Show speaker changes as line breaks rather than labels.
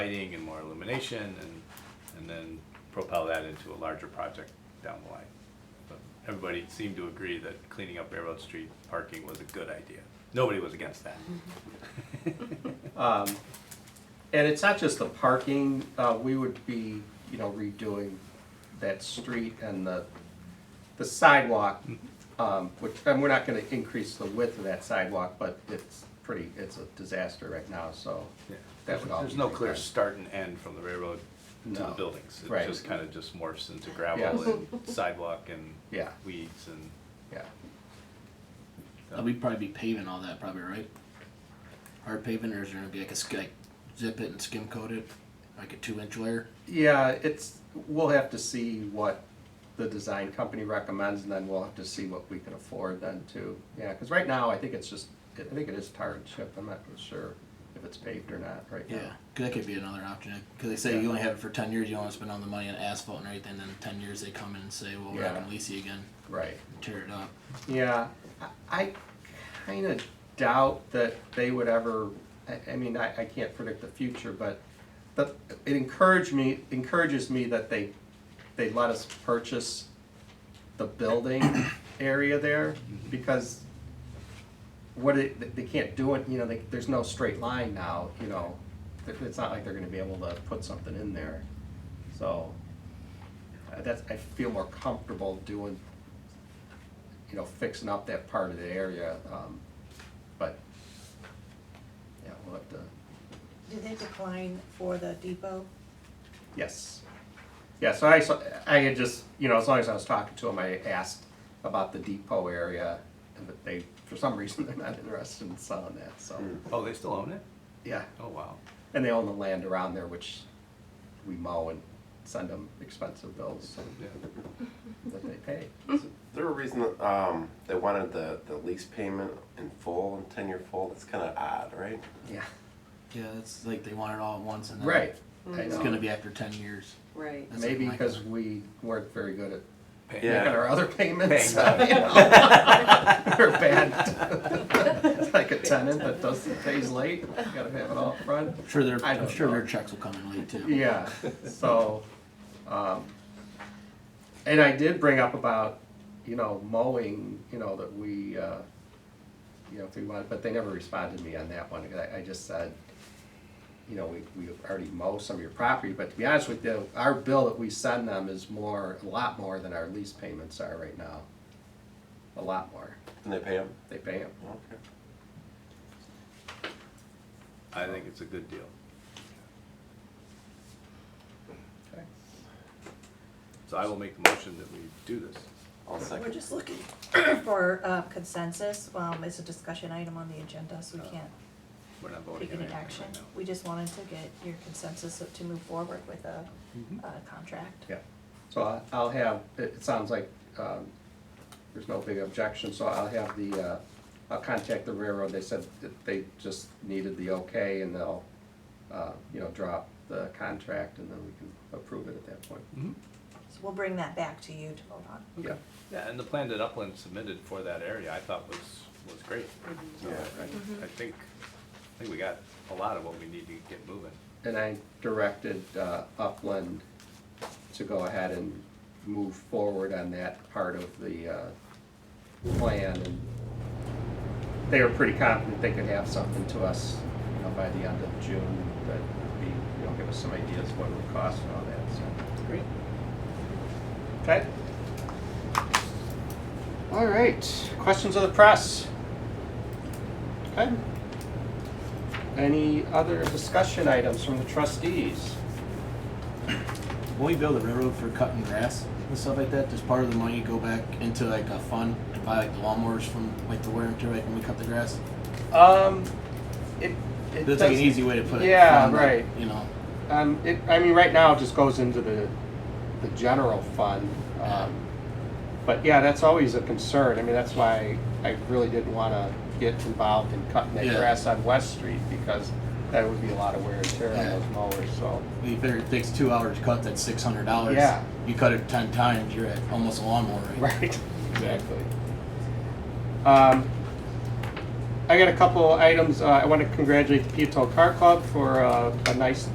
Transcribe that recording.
lighting and more illumination and, and then propel that into a larger project down the line. But Everybody seemed to agree that cleaning up Railroad Street parking was a good idea. Nobody was against that.
Um, And it's not just the parking, uh, we would be, you know, redoing that street and the, the sidewalk, um, which, and we're not gonna increase the width of that sidewalk, but it's pretty, it's a disaster right now, so.
Yeah.
that would all
There's
be
no clear
redone.
start and end from the railroad to the
No.
buildings. It
Right.
just kind of just morphs into
Yes.
gravel and sidewalk and
Yeah.
weeds and,
Yeah,
Uh, We'd probably be paving all that, probably, right? Hard paving, or is there gonna be like a sk- like zip it and skim coat it, like a two inch layer?
yeah, it's, we'll have to see what the design company recommends, and then we'll have to see what we can afford then too. Yeah, cause right now, I think it's just, I think it is tar and chip, I'm not sure if it's paved or not right now.
Yeah, 'cause that could be another option. Because they say you only have it for ten years, you don't want to spend all the money on asphalt and everything. Then ten years they come in and say, well, we're
Yeah.
not gonna lease you again,
Right.
tear it up.
Yeah, I I kinda doubt that they would ever, I, I mean, I, I can't predict the future, but, but it encouraged me, encourages me that they, they let us purchase the building area there, because what it, they- they can't do it, you know, they, there's no straight line now, you know, It- it's not like they're gonna be able to put something in there, so. uh, That's, I feel more comfortable doing you know, fixing up that part of the area, um, but, yeah, we'll have to,
Did they decline for the depot?
yes. Yeah, so I, saw- I had just, you know, as long as I was talking to them, I asked about the depot area, and that they, for some reason, they're not interested in selling that, so,
Hmm.
oh, they still own it?
yeah.
Oh, wow.
And they own the land around there, which we mow and send them expensive bills
Yeah.
that they pay.
There a reason that, um, they wanted the, the lease payment in full and ten year full. That's kind of odd, right?
Yeah,
Yeah, that's like they want it all at once, and then
right. I
It's
know.
gonna be after ten years.
Right.
That's
Maybe
like my
because
thought.
we weren't very good at
Pay-
Yeah.
making our other payments.
Paying
you know. We're bad. It's like a tenant that does, pays late, gotta have it all front.
I'm sure their
I don't
I'm sure their
know.
checks will come in late too.
Yeah, so, um, and I did bring up about, you know, mowing, you know, that we, uh, you know, if we want, but they never responded to me on that one, 'cause I, I just said, you know, we, we already mow some of your property, but to be honest with you, our bill that we send them is more, a lot more than our lease payments are right now. A lot more,
And they pay them.
they pay them,
Okay.
I think it's a good deal.
okay?
So I will make the motion that we do this.
I'll
We're
second.
just looking for uh, consensus, um, it's a discussion item on the agenda, so we can't
We're not voting
take
on
any
anything
action.
right now.
We just wanted to get your consensus to move forward with a, a contract.
Mm-hmm. Yeah, so I- I'll have, it it sounds like um, there's no big objection, so I'll have the, uh, I'll contact the railroad. They said that they just needed the okay and they'll, uh, you know, drop the contract and then we can approve it at that point.
Mhm.
So we'll bring that back to you to vote on.
Yeah,
Yeah, and the plan that Upland submitted for that area, I thought was, was great. So
Yeah.
Mm-hmm.
I, I think, I think we got a lot of what we need to get moving.
and I directed uh, Upland to go ahead and move forward on that part of the uh, plan. and They were pretty confident they could have something to us, you know, by the end of June, that would be, you know, give us some ideas what it would cost and all that, so.
Great.
Okay. All right, questions of the press? Okay. Any other discussion items from the trustees?
When we build a railroad for cutting grass and stuff like that, does part of the money go back into like a fund to buy like the lawnmowers from like the wear and tear like when we cut the grass?
Um, it, it
That's like an
doesn't-
easy way to put it.
Yeah,
fund, like,
right.
You know,
Um, it, I mean, right now it just goes into the, the general fund. Um, but yeah, that's always a concern. I mean, that's why I really didn't want to get involved in cutting that
Yeah.
grass on West Street because that would be a lot of wear and tear on
Yeah.
those mowers, so.
you figure it takes two hours to cut that six hundred dollars.
Yeah.
You cut it ten times, you're at almost a lawnmower.
Right, exactly. Um, I got a couple items, uh, I wanna congratulate the Peatone Car Club for, uh, a nice